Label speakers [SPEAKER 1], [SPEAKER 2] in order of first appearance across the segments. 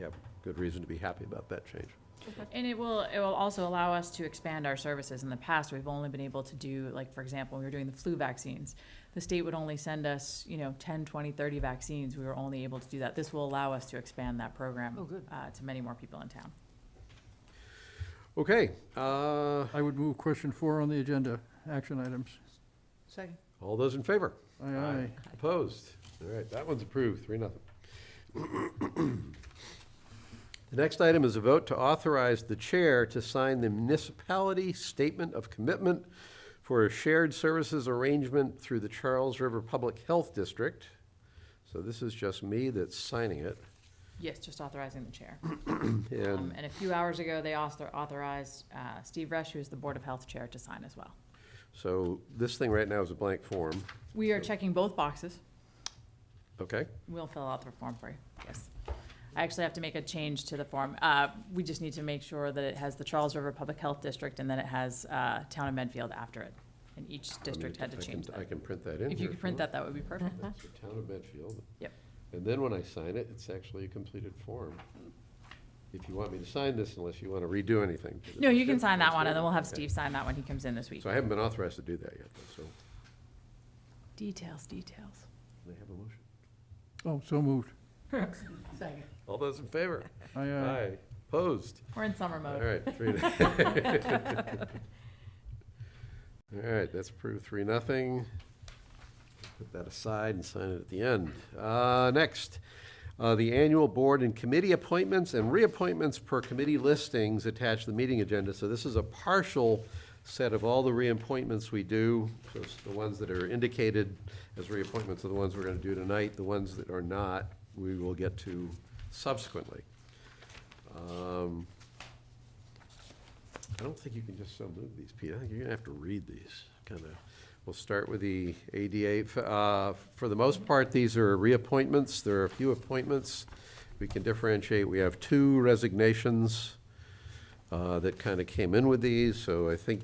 [SPEAKER 1] have good reason to be happy about that change.
[SPEAKER 2] And it will, it will also allow us to expand our services. In the past, we've only been able to do, like, for example, when we were doing the flu vaccines. The state would only send us, you know, 10, 20, 30 vaccines. We were only able to do that. This will allow us to expand that program
[SPEAKER 3] Oh, good.
[SPEAKER 2] uh, to many more people in town.
[SPEAKER 1] Okay, uh,
[SPEAKER 4] I would move question four on the agenda, action items.
[SPEAKER 3] Second.
[SPEAKER 1] all those in favor?
[SPEAKER 4] Aye, aye.
[SPEAKER 1] Opposed? All right, that one's approved, three, nothing. The next item is a vote to authorize the chair to sign the municipality statement of commitment for a shared services arrangement through the Charles River Public Health District. So this is just me that's signing it,
[SPEAKER 2] Yes, just authorizing the chair. Um,
[SPEAKER 1] and
[SPEAKER 2] And a few hours ago, they author- authorized uh, Steve Resch, who is the Board of Health Chair, to sign as well.
[SPEAKER 1] so this thing right now is a blank form,
[SPEAKER 2] We are
[SPEAKER 1] So-
[SPEAKER 2] checking both boxes.
[SPEAKER 1] okay?
[SPEAKER 2] We'll fill out the form for you, yes. I actually have to make a change to the form. Uh, we just need to make sure that it has the Charles River Public Health District and then it has, uh, Town of Medfield after it. And each district had to
[SPEAKER 1] I can-
[SPEAKER 2] change
[SPEAKER 1] I
[SPEAKER 2] that.
[SPEAKER 1] can print that in
[SPEAKER 2] If you
[SPEAKER 1] here
[SPEAKER 2] could print
[SPEAKER 1] want.
[SPEAKER 2] that, that would be perfect.
[SPEAKER 1] That's the town of Medfield.
[SPEAKER 2] Yep.
[SPEAKER 1] And then when I sign it, it's actually a completed form. If you want me to sign this, unless you want to redo anything.
[SPEAKER 2] No, you can sign that
[SPEAKER 1] That's
[SPEAKER 2] one and then we'll have
[SPEAKER 1] good. Okay.
[SPEAKER 2] Steve sign that when he comes in this week.
[SPEAKER 1] So I haven't been authorized to do that yet, though, so
[SPEAKER 2] Details, details.
[SPEAKER 1] they have a motion.
[SPEAKER 4] Oh, so moved.
[SPEAKER 3] Second.
[SPEAKER 1] All those in favor?
[SPEAKER 4] Aye, aye.
[SPEAKER 1] Opposed?
[SPEAKER 2] We're in summer
[SPEAKER 1] All
[SPEAKER 2] mode.
[SPEAKER 1] right, three. to- All right, that's approved, three, nothing. Put that aside and sign it at the end. Uh, Next, uh, the annual board and committee appointments and reappointments per committee listings attached to the meeting agenda. So this is a partial set of all the reappointments we do. So it's the ones that are indicated as reappointments are the ones we're going to do tonight. The ones that are not, we will get to subsequently. Um, I don't think you can just so move these, Pete. I think you're gonna have to read these, kind of. We'll start with the ADA. F- uh, For the most part, these are reappointments. There are a few appointments. We can differentiate. We have two resignations uh, that kind of came in with these, so I think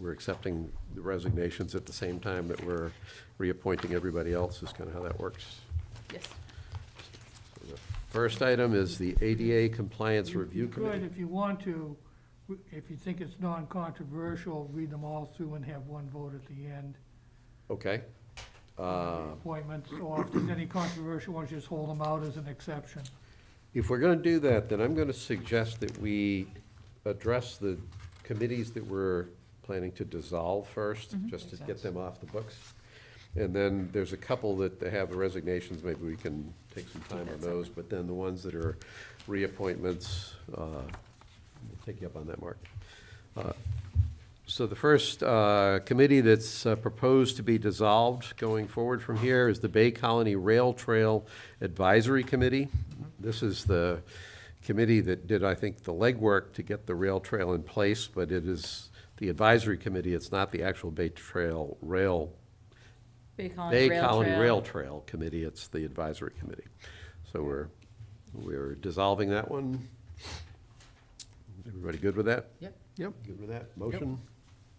[SPEAKER 1] we're accepting the resignations at the same time that we're reappointing everybody else, is kind of how that works.
[SPEAKER 2] Yes.
[SPEAKER 1] The First item is the ADA Compliance Review
[SPEAKER 5] Good,
[SPEAKER 1] Committee.
[SPEAKER 5] if you want to, if you think it's non-controversial, read them all through and have one vote at the end.
[SPEAKER 1] Okay. Uh,
[SPEAKER 5] Appointments, or if there's any controversial ones, just hold them out as an exception.
[SPEAKER 1] If we're gonna do that, then I'm gonna suggest that we address the committees that we're planning to dissolve first, just to get them off the books. And then there's a couple that they have resignations, maybe we can take some time on those, but then the ones that are reappointments, uh, we'll take you up on that, Mark. Uh, So the first, uh, committee that's uh, proposed to be dissolved going forward from here is the Bay Colony Rail Trail Advisory Committee. This is the committee that did, I think, the legwork to get the rail trail in place, but it is the advisory committee, it's not the actual Bay Trail Rail
[SPEAKER 2] Bay Colony
[SPEAKER 1] Bay
[SPEAKER 2] Rail
[SPEAKER 1] Colony Rail
[SPEAKER 2] Trail.
[SPEAKER 1] Trail Committee, it's the advisory committee. So we're, we're dissolving that one. Everybody good with that?
[SPEAKER 3] Yep.
[SPEAKER 4] Yep.
[SPEAKER 1] Good with that? Motion?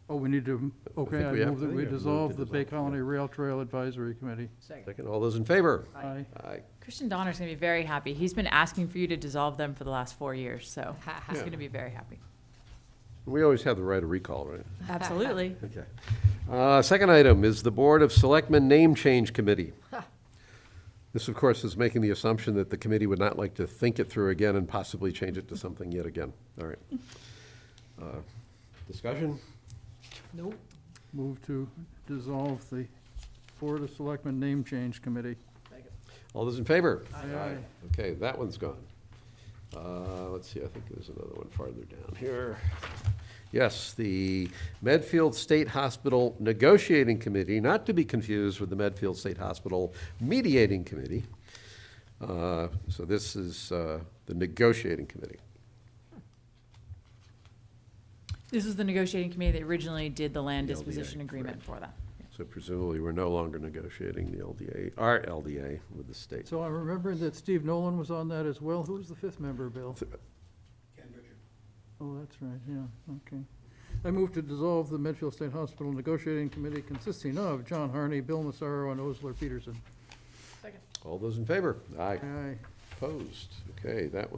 [SPEAKER 4] Oh, we need to, okay,
[SPEAKER 1] think
[SPEAKER 4] I
[SPEAKER 1] we have
[SPEAKER 4] move
[SPEAKER 1] to.
[SPEAKER 4] that we
[SPEAKER 1] Yeah, move to
[SPEAKER 4] dissolve the
[SPEAKER 1] dissolve,
[SPEAKER 4] Bay
[SPEAKER 1] yeah.
[SPEAKER 4] Colony Rail Trail Advisory Committee.
[SPEAKER 3] Second.
[SPEAKER 1] Second, all those in favor?
[SPEAKER 3] Aye.
[SPEAKER 4] Aye.
[SPEAKER 1] Aye.
[SPEAKER 2] Christian Donner's gonna be very happy. He's been asking for you to dissolve them for the last four years, so he's
[SPEAKER 1] Yeah.
[SPEAKER 2] gonna be very happy.
[SPEAKER 1] We always have the right of recall, right?
[SPEAKER 2] Absolutely.
[SPEAKER 1] Okay. Uh, Second item is the Board of Selectmen Name Change Committee. This, of course, is making the assumption that the committee would not like to think it through again and possibly change it to something yet again. All right. Uh, Discussion?
[SPEAKER 3] Nope.
[SPEAKER 4] Move to dissolve the Board of Selectmen Name Change Committee.
[SPEAKER 1] All those in favor?
[SPEAKER 4] Aye. Aye.
[SPEAKER 1] Okay, that one's gone. Uh, Let's see, I think there's another one farther down here. Yes, the Medfield State Hospital Negotiating Committee, not to be confused with the Medfield State Hospital Mediating Committee. Uh, So this is uh, the negotiating committee.
[SPEAKER 2] This is the negotiating committee that originally did the land
[SPEAKER 1] The LDA,
[SPEAKER 2] disposition agreement
[SPEAKER 1] right.
[SPEAKER 2] for them.
[SPEAKER 1] So presumably, we're no longer negotiating the LDA, our LDA with the state.
[SPEAKER 4] So I'm remembering that Steve Nolan was on that as well. Who was the fifth member, Bill? Ken Richard. Oh, that's right, yeah, okay. I move to dissolve the Medfield State Hospital Negotiating Committee consisting of John Harney, Bill Massaro, and Osler Peterson.
[SPEAKER 1] All those in favor? Aye.
[SPEAKER 4] Aye.
[SPEAKER 1] Opposed? Okay, that